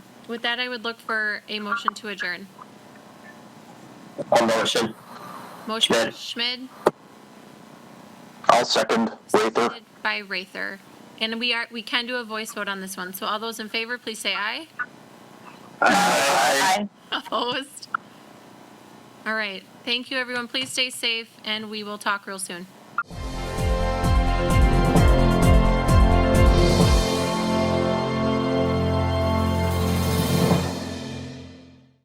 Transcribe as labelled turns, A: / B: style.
A: With that, I would look for a motion to adjourn.
B: I'll motion.
A: Motion by Schmid,
B: I'll second. Waither.
A: seconded by Rather. And we are, we can do a voice vote on this one. So all those in favor, please say aye.
B: Aye.
A: Opposed? All right. Thank you, everyone. Please stay safe and we will talk real soon.